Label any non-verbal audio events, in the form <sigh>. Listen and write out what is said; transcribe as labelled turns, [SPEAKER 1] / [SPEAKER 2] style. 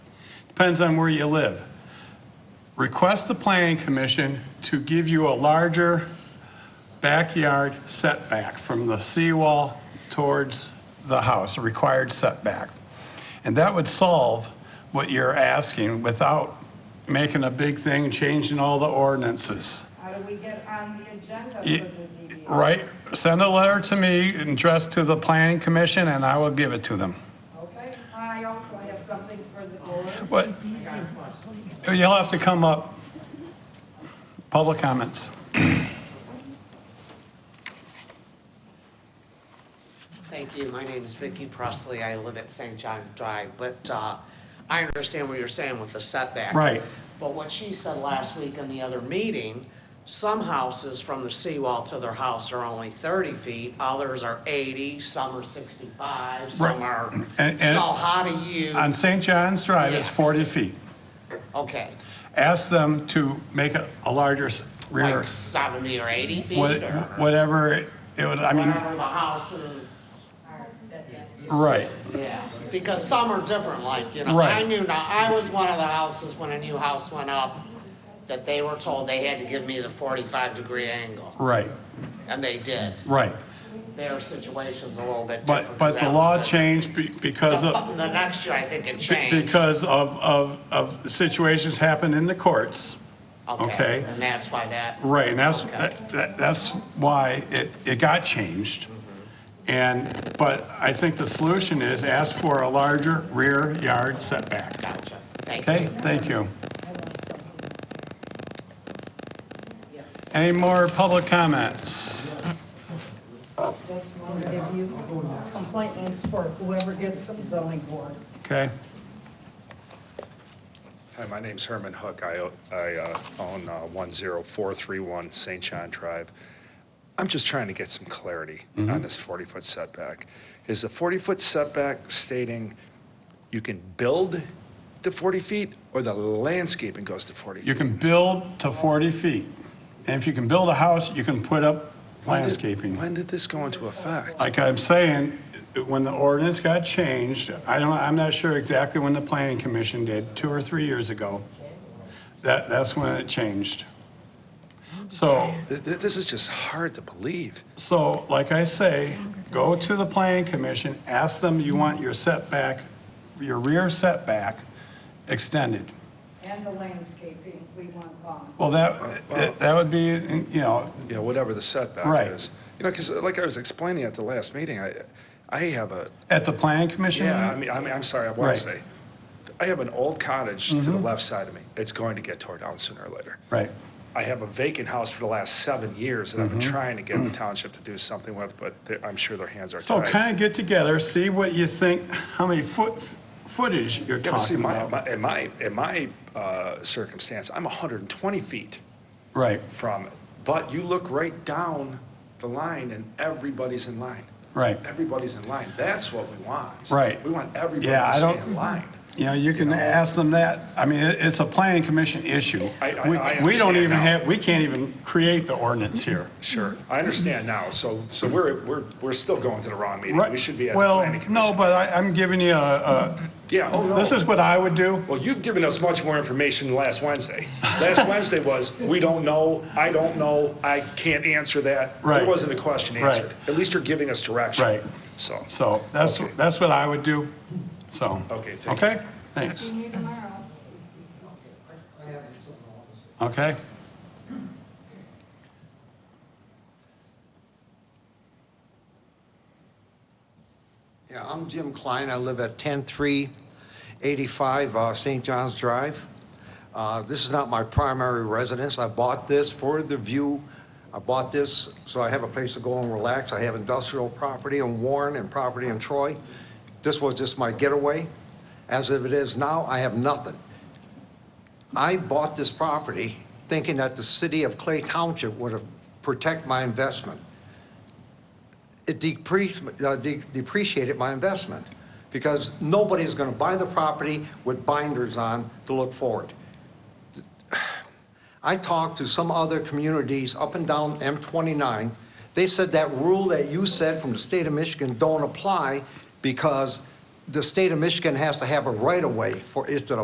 [SPEAKER 1] depends on where you live. Request the planning commission to give you a larger backyard setback from the seawall towards the house, a required setback. And that would solve what you're asking without making a big thing, changing all the ordinances.
[SPEAKER 2] How do we get on the agenda for
[SPEAKER 1] It-
[SPEAKER 2] the ZBA?
[SPEAKER 1] Right, send a letter to me addressed to the planning commission and I will give it to them.
[SPEAKER 2] Okay, I also have something for the board.
[SPEAKER 1] What? You'll have to come up. Public comments.
[SPEAKER 3] Thank you. My name is Vicky Presley. I live at St. John Drive, but uh, I understand what you're saying with the setback.
[SPEAKER 1] Right.
[SPEAKER 3] But what she said last week in the other meeting, some houses from the seawall to their house are only 30 feet, others are 80, some are 65, some
[SPEAKER 1] Right.
[SPEAKER 3] are,
[SPEAKER 1] <clears throat> And- and-
[SPEAKER 3] so how do you,
[SPEAKER 1] On St. John's Drive, it's
[SPEAKER 3] Yeah.
[SPEAKER 1] 40 feet.
[SPEAKER 3] okay,
[SPEAKER 1] Ask them to make a a larger s- rear,
[SPEAKER 3] like 70 or 80 feet
[SPEAKER 1] what-
[SPEAKER 3] or
[SPEAKER 1] whatever it would, I mean,
[SPEAKER 3] whatever the house is?
[SPEAKER 1] right.
[SPEAKER 3] Yeah, because some are different, like, you know,
[SPEAKER 1] Right.
[SPEAKER 3] I knew now, I was one of the houses when a new house went up, that they were told they had to give me the forty-five degree angle,
[SPEAKER 1] Right,
[SPEAKER 3] and they did.
[SPEAKER 1] right.
[SPEAKER 3] Their situation's a little bit
[SPEAKER 1] But,
[SPEAKER 3] different. 'cause
[SPEAKER 1] but the
[SPEAKER 3] that
[SPEAKER 1] law
[SPEAKER 3] was the-
[SPEAKER 1] changed be- because
[SPEAKER 3] The
[SPEAKER 1] of,
[SPEAKER 3] fu- the next year, I think it
[SPEAKER 1] be-
[SPEAKER 3] changed.
[SPEAKER 1] because of, of, of situations happen in the courts. okay.
[SPEAKER 3] And that's why that,
[SPEAKER 1] Right, and that's,
[SPEAKER 3] Okay.
[SPEAKER 1] that- that- that's why it, it got changed. And, but I think the solution is ask for a larger rear yard setback.
[SPEAKER 3] gotcha, thank you.
[SPEAKER 1] Okay, thank you. Any more public comments?
[SPEAKER 4] Just want to give you complaints for whoever gets some zoning board.
[SPEAKER 1] Okay,
[SPEAKER 5] Hi, my name's Herman Hook. I, o- I uh, own uh, 10431 St. John Drive. I'm just trying to get some clarity
[SPEAKER 1] Mm-hmm.
[SPEAKER 5] on this 40-foot setback. Is the 40-foot setback stating you can build to 40 feet, or the landscaping goes to 40
[SPEAKER 1] you
[SPEAKER 5] feet?
[SPEAKER 1] can build to 40 feet. And if you can build a house, you can put up
[SPEAKER 5] When did-
[SPEAKER 1] landscaping.
[SPEAKER 5] When did this go into effect?
[SPEAKER 1] Like I'm saying, when the ordinance got changed, I don't, I'm not sure exactly when the planning commission did, two or three years ago. That, that's when it changed. So,
[SPEAKER 5] Th- th- This is just hard to believe.
[SPEAKER 1] so like I say, go to the planning commission, ask them you want your setback, your rear setback extended.
[SPEAKER 2] And the landscaping, we want gone.
[SPEAKER 1] Well, that, that would be, you know,
[SPEAKER 5] you know, whatever the setback
[SPEAKER 1] Right.
[SPEAKER 5] is. You know, because like I was explaining at the last meeting, I, I have a,
[SPEAKER 1] at the planning commission.
[SPEAKER 5] yeah, I mean, I mean, I'm sorry, I
[SPEAKER 1] Right. Mm-hmm.
[SPEAKER 5] want to say, I have an old cottage to the left side of me. It's going to get torn down sooner or later.
[SPEAKER 1] Right,
[SPEAKER 5] I have a vacant house for the last seven years that I've been
[SPEAKER 1] Mm-hmm.
[SPEAKER 5] trying
[SPEAKER 1] <clears throat>
[SPEAKER 5] to get the township to do something with, but they're- I'm sure their hands are
[SPEAKER 1] so
[SPEAKER 5] tied.
[SPEAKER 1] kind of get together, see what you think, how many foot, footage you're
[SPEAKER 5] Yeah, but see,
[SPEAKER 1] talking
[SPEAKER 5] my,
[SPEAKER 1] about.
[SPEAKER 5] my- in my, in my uh, circumstance, I'm 120 feet
[SPEAKER 1] Right,
[SPEAKER 5] from it. But you look right down the line and everybody's in line.
[SPEAKER 1] right.
[SPEAKER 5] Everybody's in line. That's what we want.
[SPEAKER 1] Right.
[SPEAKER 5] We want everybody
[SPEAKER 1] Yeah, I
[SPEAKER 5] to stay
[SPEAKER 1] don't-
[SPEAKER 5] in line.
[SPEAKER 1] You know, you can ask them that. I mean, it- it's a planning commission issue.
[SPEAKER 5] I- I-
[SPEAKER 1] We-
[SPEAKER 5] I
[SPEAKER 1] We don't
[SPEAKER 5] understand
[SPEAKER 1] even
[SPEAKER 5] now.
[SPEAKER 1] have, we can't even create the ordinance here.
[SPEAKER 5] Sure. I understand now. So, so we're, we're, we're still going to the wrong meeting.
[SPEAKER 1] Right?
[SPEAKER 5] We should be at the
[SPEAKER 1] Well,
[SPEAKER 5] planning commission.
[SPEAKER 1] no, but I, I'm giving you a,
[SPEAKER 5] Yeah, oh,
[SPEAKER 1] a,
[SPEAKER 5] no.
[SPEAKER 1] this is what I would do.
[SPEAKER 5] Well, you've given us much more information than last Wednesday.
[SPEAKER 1] <laughs>
[SPEAKER 5] Last Wednesday was, we don't know, I don't know, I can't answer that.
[SPEAKER 1] Right.
[SPEAKER 5] There wasn't a question
[SPEAKER 1] Right.
[SPEAKER 5] answered. At least you're giving us direction.
[SPEAKER 1] Right.
[SPEAKER 5] So,
[SPEAKER 1] So that's,
[SPEAKER 5] Okay.
[SPEAKER 1] that's what I would do, so.
[SPEAKER 5] Okay, thank you.
[SPEAKER 1] Okay, thanks.
[SPEAKER 2] See you tomorrow.
[SPEAKER 1] Okay.
[SPEAKER 6] Yeah, I'm Jim Klein. I live at 10385 uh, St. John's Drive. Uh, This is not my primary residence. I bought this for the view. I bought this so I have a place to go and relax. I have industrial property in Warren and property in Troy. This was just my getaway. As of it is now, I have nothing. I bought this property thinking that the city of Clay Township would have protect my investment it decreased, uh, de- depreciated my investment because nobody is going to buy the property with binders on to look forward. I talked to some other communities up and down M29. They said that rule that you said from the state of Michigan don't apply because the state of Michigan has to have a right-of-way for it to